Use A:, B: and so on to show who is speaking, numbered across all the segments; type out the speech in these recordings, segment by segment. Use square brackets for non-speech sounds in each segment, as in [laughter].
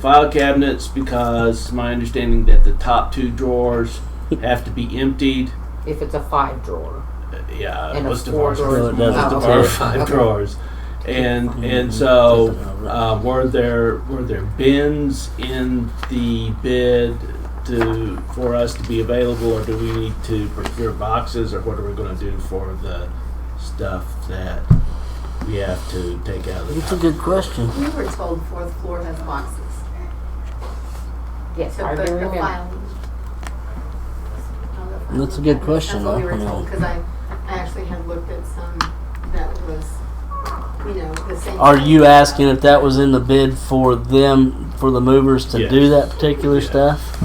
A: file cabinets because my understanding that the top two drawers have to be emptied.
B: if it's a five drawer.
A: Uh, Yeah,
B: And a
A: most of
B: four
A: ours,
B: drawer-
A: are-
C: No, it
A: most of
B: oh,
A: our
B: okay.
A: five
B: Okay.
A: drawers. And, and so, uh, were there, were there bins in the bid to, for us to be available? Or do we need to procure boxes or what are we gonna do for the stuff that we have to take out of the
C: It's a
A: top?
C: good question.
D: We were told fourth floor has boxes
B: Yes,
D: to
B: I do
D: put the
B: remember.
D: filing.
C: That's a good question,
D: That's what we
C: though,
D: were
C: you know.
D: told, because I, I actually had looked at some that was, you know, the same.
C: Are you asking if that was in the bid for them, for the movers to do
A: Yes.
C: that particular
A: Yeah.
C: stuff?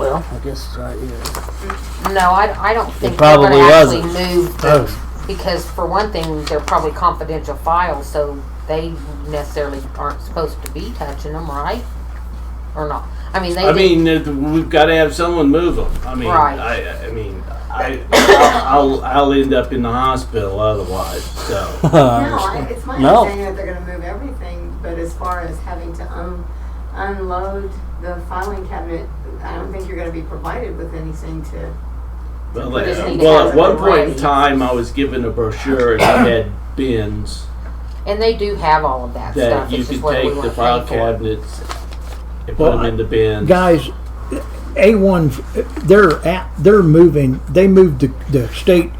C: Well, I guess it's right here.
B: No, I, I don't think they're
C: probably
B: gonna actually
C: wasn't.
B: move,
C: [laughs] Oh,
B: because for one thing, they're probably confidential files, so they necessarily aren't supposed to be touching them, right? Or not, I mean,
A: I
B: they do,
A: mean, if- we've got to have someone move them. I mean,
B: Right.
A: I, I mean, I, I'll, I'll end up in the hospital otherwise. So,
D: No, I- it's my
C: uh, No.
D: understanding that they're gonna move everything, but as far as having to un- unload the filing cabinet, I don't think you're gonna be provided with anything to.
A: well,
D: We
B: just need to
A: well,
B: have
A: at one
B: it
A: point in
B: ready.
A: time, I was given a brochure and
E: [coughs]
A: it had bins
B: and they do have all of that
A: that
B: stuff,
A: you
B: it's
A: could
B: just whether we
A: take
B: wanna
A: the
B: pay
A: file
B: for it.
A: cabinets and put
E: Well,
A: them in the bins.
E: guys, A1, they're at, they're moving, they moved the, the state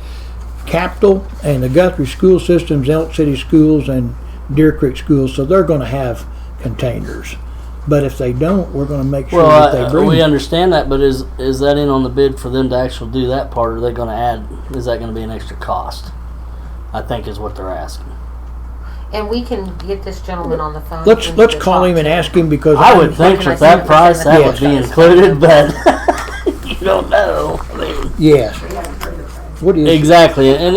E: capital and the Guthrie school systems, Elk City schools and Deer Creek schools, so they're gonna have containers. But if they don't, we're gonna make sure that they
C: Well, I-
E: bring.
C: we understand that, but is, is that in on the bid for them to actually do that part? or Are they gonna add, is that gonna be an extra cost? I think is what they're asking.
B: And we can get this gentleman on the phone.
E: Let's,
B: and
E: let's
B: just
E: call
B: talk
E: him
B: to
E: and ask him because.
C: I would
E: I'm-
C: think
B: Can I
C: at
B: see
C: that
B: the-
C: price, that would be
B: Yes.
C: included, but [laughs] you don't know. I mean,
E: Yes,
D: We haven't heard of that.
E: what is,
C: Exactly, and, and,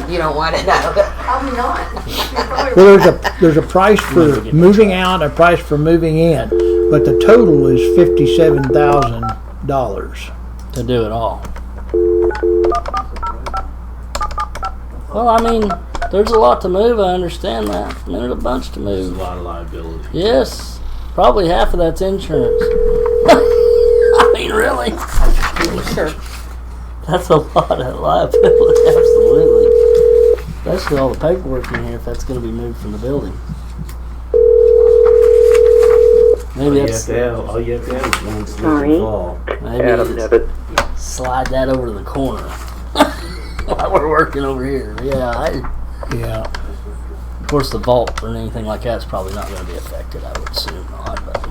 C: and
B: You don't wanna know,
D: Probably not. [laughs] You're
C: [laughs]
D: probably
E: well,
D: right.
E: there's a, there's a price for moving out, a price for moving in, but the total is fifty-seven thousand dollars.
C: to do it all. Well, I mean, there's a lot to move. I understand that. I mean, there's a bunch to
A: There's a
C: move.
A: lot of liability.
C: Yes, probably half of that's insurance. [laughs] I mean, really,
B: [laughs] sure,
C: that's a lot of liability. [laughs] Absolutely, especially all the paperwork in here. If that's going to be moved from the building,
A: All
C: maybe
A: you, have
C: that's
A: to have, all you have to have is one solution fall.
C: maybe it's- slide that over to the corner. [laughs] While we're working over here, yeah. I,
E: Yeah.
C: Of course, the vault or anything like that's probably not going to be affected. I would assume not. But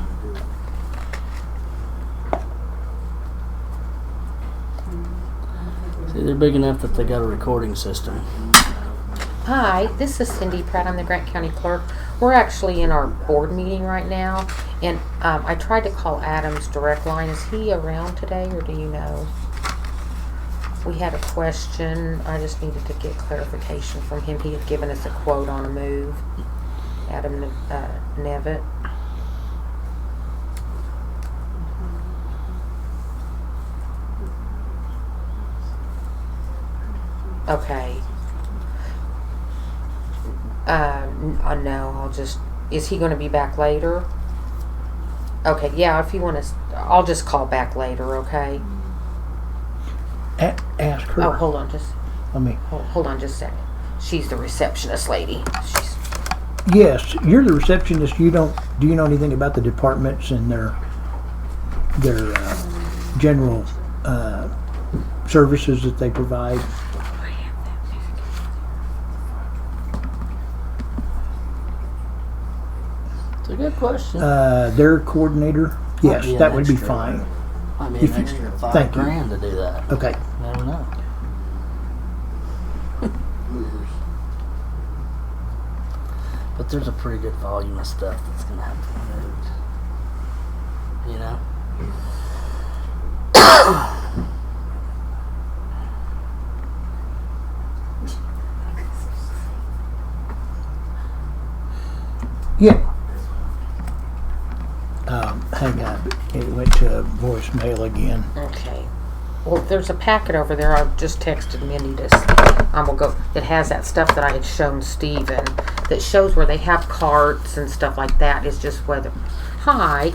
C: see, they're big enough that they got a recording system.
B: Hi, this is Cindy Pratt. I'm the Grant County Clerk. We're actually in our board meeting right now, and um, I tried to call Adam's direct line. Is he around today, or do you know? We had a question. I just needed to get clarification from him. He had given us a quote on a move. Adam uh, Nevitt. Okay. Um, I know. I'll just. Is he going to be back later? Okay. Yeah. If you want to, I'll just call back later. Okay.
E: A- ask
B: Oh,
E: her.
B: hold on. Just
E: I mean,
B: hold, hold on. Just a second. She's the receptionist lady. She's
E: yes, you're the receptionist. You don't. Do you know anything about the departments and their their uh, general uh, services that they provide?
C: It's a good question.
E: Uh, their coordinator.
C: Might
E: Yes,
C: be an
E: that would be
C: extra.
E: fine.
C: Might be
E: if
C: an
E: you-
C: extra five
E: thank you.
C: grand to do that.
E: Okay.
C: I don't know. But there's a pretty good volume of stuff that's gonna have to be moved. You know?
E: Yeah. Um, hang on. It went to voicemail again.
B: okay. Well, there's a packet over there. I just texted Mindy to. s- I'm gonna go. It has that stuff that I had shown Steven that shows where they have carts and stuff like that. It's just whether pie